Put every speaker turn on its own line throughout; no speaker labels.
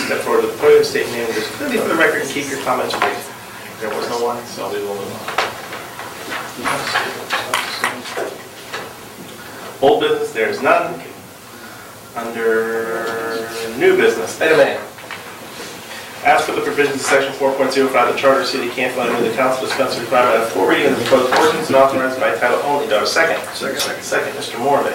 step forward to the podium, state your name, and just clearly for the record, and keep your comments brief. There was no one, so we will move on. Old business, there is none. Under new business, item A. As for the provisions of section 4.05 of the Charter of the City of Canfield, I move the council dispense with the requirement of four readings of the proposed ordinance and authorized by title only. Do I have a second?
Second.
Second, Mr. Morve.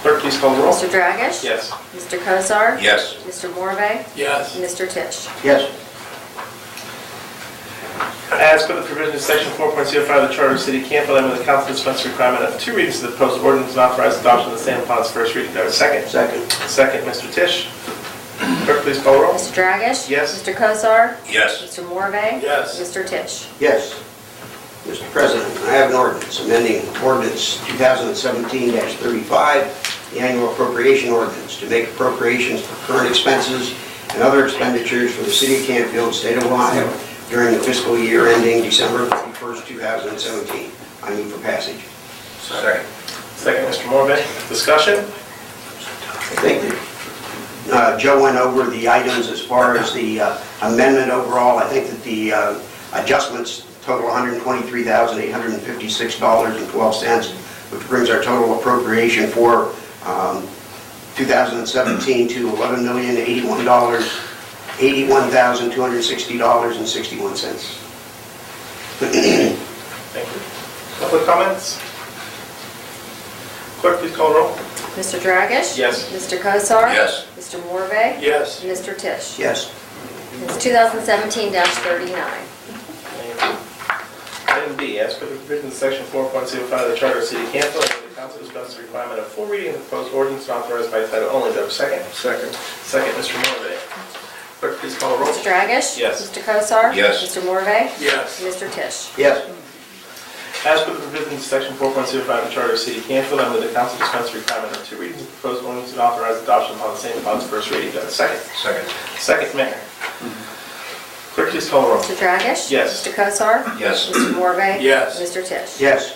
Clerk, please call the roll.
Mr. Dragish?
Yes.
Mr. Cosar?
Yes.
Mr. Morve?
Yes.
Mr. Tisch?
Yes.
As per the provision of section 4.05 of the Charter of the City of Canfield, I move the council dispense with the requirement of two readings of the proposed ordinance and authorize adoption of the same upon its first reading. Do I have a second?
Second.
Second, Mr. Tisch. Clerk, please call the roll.
Mr. Dragish?
Yes.
Mr. Cosar?
Yes.
Mr. Morve?
Yes.
Mr. Tisch?
Yes. Mr. President, I have an ordinance amending ordinance 2017-35, the annual appropriation ordinance, to make appropriations for current expenses and other expenditures for the city of Campfield, state of Ohio, during the fiscal year ending December 31st, 2017. I move for passage.
Second.
Second, Mr. Morve. Discussion?
I think that uh, Joe went over the items as far as the uh, amendment overall. I think that the uh, adjustments total $123,856.12, which brings our total appropriation for um, 2017 to $11,081,260.61.
Thank you. Public comments? Clerk, please call the roll.
Mr. Dragish?
Yes.
Mr. Cosar?
Yes.
Mr. Morve?
Yes.
Mr. Tisch?
Yes.
It's 2017-39.
Item B, as per the provisions of section 4.05 of the Charter of the City of Canfield, I move the council dispense with the requirement of full reading of the proposed ordinance and authorize by title only. Do I have a second?
Second.
Second, Mr. Morve. Clerk, please call the roll.
Mr. Dragish?
Yes.
Mr. Cosar?
Yes.
Mr. Morve?
Yes.
Mr. Tisch?
Yes.
As per the provisions of section 4.05 of the Charter of the City of Canfield, I move the council dispense with the requirement of two readings of the proposed ordinance and authorize adoption upon the same upon its first reading. Do I have a second?
Second.
Second, Mayor. Clerk, please call the roll.
Mr. Dragish?
Yes.
Mr. Cosar?
Yes.
Mr. Morve?
Yes.
Mr. Tisch?
Yes.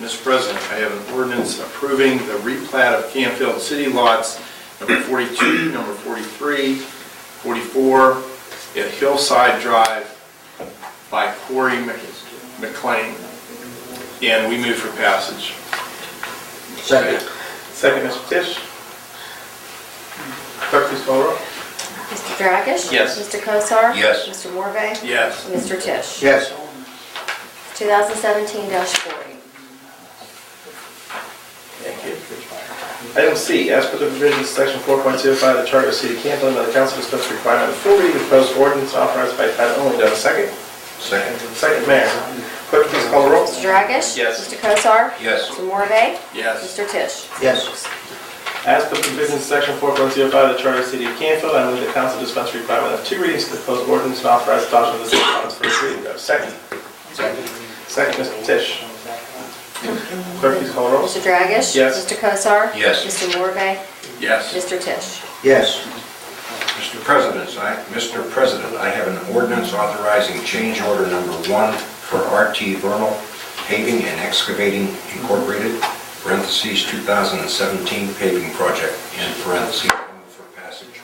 Mr. President, I have an ordinance approving the replat of Canfield City Lots number 42, number 43, 44, at Hillside Drive by Corey Mc- McLean. And we move for passage.
Second.
Second, Mr. Tisch. Clerk, please call the roll.
Mr. Dragish?
Yes.
Mr. Cosar?
Yes.
Mr. Morve?
Yes.
Mr. Tisch?
Yes.
2017-40.
Item C, as per the provisions of section 4.05 of the Charter of the City of Canfield, the council dispense with the requirement of full reading of proposed ordinance authorized by title only. Do I have a second?
Second.
Second, Mayor. Clerk, please call the roll.
Mr. Dragish?
Yes.
Mr. Kosar?
Yes.
Mr. Morve?
Yes.
Mr. Tisch?
Yes.
As per the provisions of section 4.05 of the Charter of the City of Canfield, I move the council dispense with the requirement of two readings of the proposed ordinance and authorize adoption of the same upon its first reading. Do I have a second? Second, Mr. Tisch. Clerk, please call the roll.
Mr. Dragish?
Yes.
Mr. Kosar?
Yes.
Mr. Morve?
Yes.
Mr. Tisch?
Yes.
Mr. President, I, Mr. President, I have an ordinance authorizing change order number one for RT Vernal Paving and Excavating Incorporated, parentheses, 2017 paving project, in parentheses, I move for passage.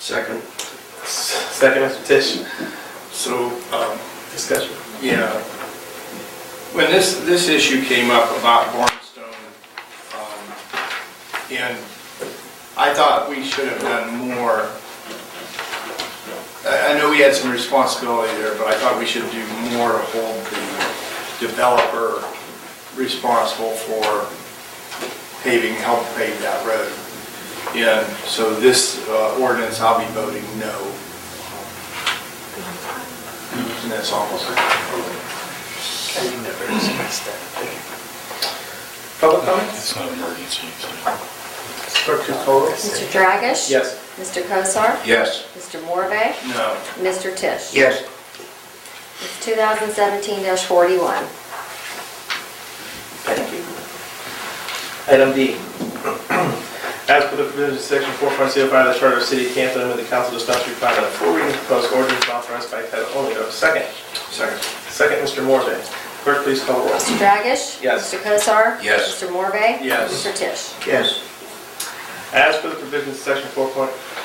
Second.
Second, Mr. Tisch.
So, um,
Discussion.
yeah, when this, this issue came up about Barnstone, um, and I thought we should have done more. I, I know we had some responsibility there, but I thought we should do more to hold the developer responsible for paving, help pave that road. And so this uh, ordinance, I'll be voting no. And that's almost.
Public comments?
It's not an emergency, so.
Clerk, please call the roll.
Mr. Dragish?
Yes.
Mr. Kosar?
Yes.
Mr. Morve?
No.
Mr. Tisch?
Yes.
It's 2017-41.
Thank you. Item D. As per the provisions of section 4.05 of the Charter of the City of Canfield, I move the council dispense with the requirement of full reading of the proposed ordinance authorized by title only. Do I have a second?
Second.
Second, Mr. Morbe. Clerk, please call the roll.
Mr. Dragish?
Yes.
Mr. Kosar?
Yes.
Mr. Morve?
Yes.
Mr. Tisch?
Yes.
As per the provisions of section 4.05